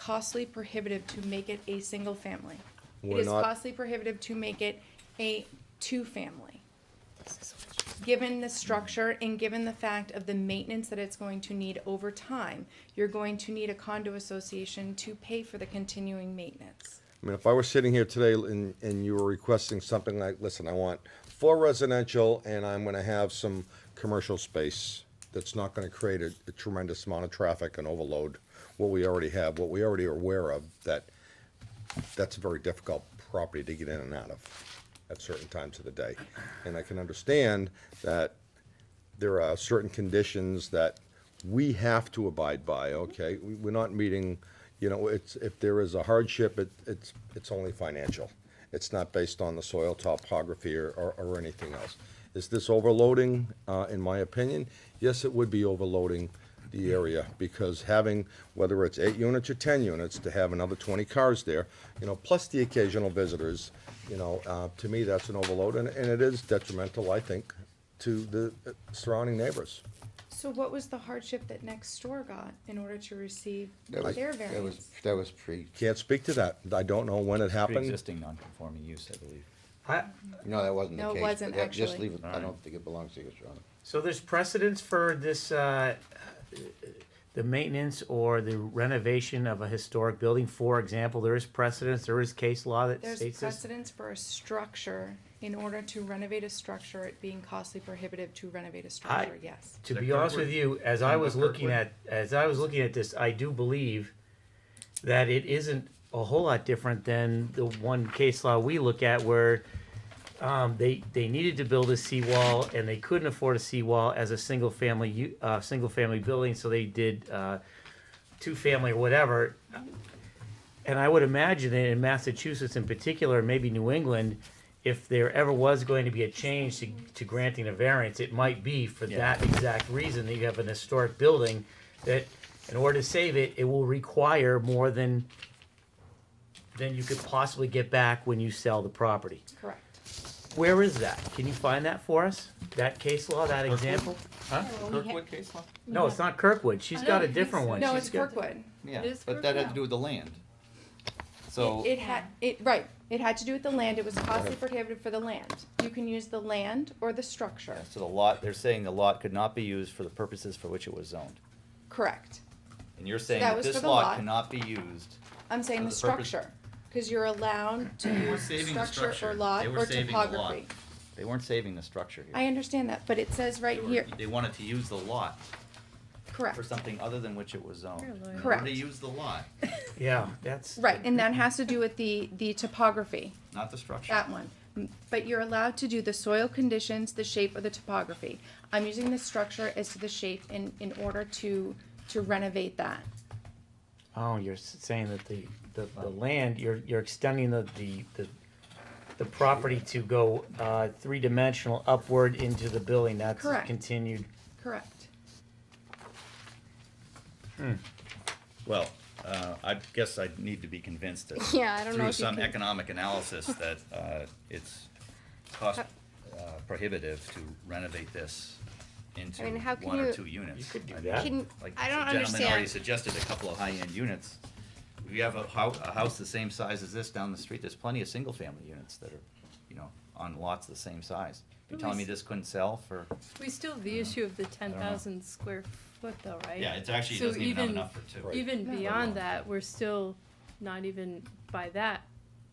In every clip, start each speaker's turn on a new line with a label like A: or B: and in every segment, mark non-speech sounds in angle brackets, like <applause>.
A: costly prohibitive to make it a single family. It
B: We're
A: is
B: not-
A: costly prohibitive to make it a two-family. Given the structure and given the fact of the maintenance that it's going to need over time, you're going to need a condo association to pay for the continuing maintenance.
B: I mean, if I were sitting here today and, and you were requesting something like, listen, I want four residential and I'm gonna have some commercial space that's not gonna create a a tremendous amount of traffic and overload what we already have, what we already are aware of, that, that's a very difficult property to get in and out of at certain times of the day. And I can understand that there are certain conditions that we have to abide by, okay? We- We're not meeting, you know, it's, if there is a hardship, it, it's, it's only financial. It's not based on the soil topography or, or, or anything else. Is this overloading, uh, in my opinion? Yes, it would be overloading the area, because having, whether it's eight units or ten units, to have another twenty cars there, you know, plus the occasional visitors, you know, uh, to me, that's an overload, and, and it is detrimental, I think, to the uh, surrounding neighbors.
A: So what was the hardship that next door got in order to receive
C: That was,
A: their
C: that was,
A: variance?
C: that was pre,
B: Can't speak to that. I don't know when it happened.
D: Pre-existing non-conforming use, I believe.
E: I,
C: no, that wasn't the
A: No,
C: case.
A: it wasn't,
C: but that- Just
A: actually.
C: leave it, I don't think it belongs to you, Your Honor.
E: so there's precedence for this, uh, the maintenance or the renovation of a historic building, for example, there is precedence, there is case law that
A: There's
E: states this.
A: precedence for a structure, in order to renovate a structure, it being costly prohibitive to renovate a structure, yes.
E: To be honest with you, as I was looking at, as I was looking at this, I do believe that it isn't a whole lot different than the one case law we look at where um, they, they needed to build a seawall and they couldn't afford a seawall as a single family, u- uh, single family building, so they did, uh, two family or whatever. And I would imagine that in Massachusetts in particular, maybe New England, if there ever was going to be a change to, to granting a variance, it might be for that exact reason that you have an historic building that in order to save it, it will require more than than you could possibly get back when you sell the property.
A: Correct.
E: Where is that? Can you find that for us? That case law, that example?
F: Oh,
G: Kirkwood case law?
E: No, it's not Kirkwood. She's
G: I
E: got a
G: don't think
E: different
G: so.
E: one.
A: No,
E: She's
A: it's
E: got-
A: Kirkwood.
G: Yeah,
F: is
G: but that had
F: Kirkwood.
G: to do with the land. So,
A: It had, it, right, it had to do with the land, it was costly prohibitive for the land. You can use the land or the structure,
G: so the lot, they're saying the lot could not be used for the purposes for which it was zoned.
A: correct.
G: And you're saying
A: that
G: that
A: was for
G: this
A: the lot.
G: lot cannot be used.
A: I'm saying
G: For
A: the
G: the purpose-
A: structure, cause you're allowed to use
G: saving the
A: structure or
G: structure.
A: lot
G: They were
A: or
G: saving the
A: topography.
G: lot. They weren't saving the structure here.
A: I understand that, but it says right
G: They were-
A: here,
G: They wanted to use the lot
A: correct.
G: for something other than which it was zoned. In order
A: Correct.
G: to use the lot,
E: Yeah, that's.
A: Right, and that has to do with the, the topography,
G: not the structure.
A: that one. M- But you're allowed to do the soil conditions, the shape, or the topography. I'm using the structure as to the shape in, in order to, to renovate that.
E: Oh, you're s- saying that the, the, the land, you're, you're extending the, the, the, the property to go, uh, three-dimensional upward into the building, that's
A: Correct.
E: continued.
A: Correct.
G: Well, uh, I guess I need to be convinced that.
F: <laughs> Yeah, I don't know
G: Through
F: if you
G: some
F: can-
G: economic
F: <laughs>
G: analysis that uh, it's cost uh, prohibitive to renovate this into
F: I mean, how can
G: one or
F: you-
G: two units. You
E: could do
G: I mean,
E: that.
F: Can-
G: Like
F: I don't
G: the gentleman already
F: understand.
G: suggested, a couple of high-end units. We have a house, a house the same size as this down the street, there's plenty of single-family units that are, you know, on lots the same size. You're telling me this couldn't sell for,
F: We still have the
E: Mm.
F: issue of the ten thousand square foot though, right?
G: yeah, it's actually,
F: So
G: doesn't even have
F: even-
G: enough for two.
F: Even
A: No.
F: beyond that, we're still not even by that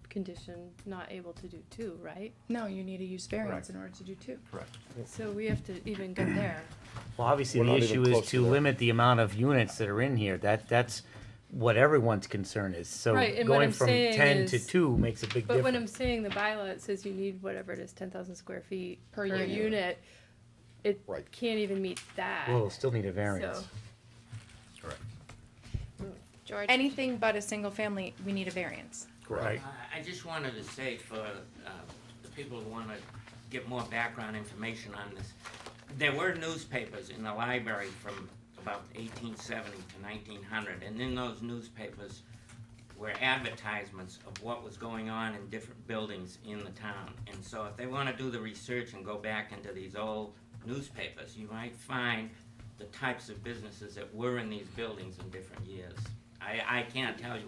F: condition, not able to do two, right?
A: No, you need a use variance
G: Correct.
A: in order to do two.
G: Correct.
F: So we have to even go there.
E: Well, obviously,
B: We're
E: the
B: not even
E: issue is
B: close to
E: to
B: that.
E: limit the amount of units that are in here, that, that's what everyone's concern is, so
F: Right, and what
E: going
F: I'm
E: from
F: saying
E: ten to
F: is-
E: two makes a <clears throat> big
F: But when I'm
E: difference.
F: saying the bylaw, it says you need whatever it is, ten thousand square feet per
A: Per unit.
F: unit. It
B: Right.
F: can't even meet that.
E: Well, we'll still need a variance.
F: So-
G: Correct.
F: Mm. George?
A: Anything but a single family, we need a variance.
E: Right.
H: I I just wanted to say for uh, the people who want to get more background information on this, there were newspapers in the library from about 1870 to 1900, and in those newspapers were advertisements of what was going on in different buildings in the town. And so if they want to do the research and go back into these old newspapers, you might find the types of businesses that were in these buildings in different years. I, I can't tell you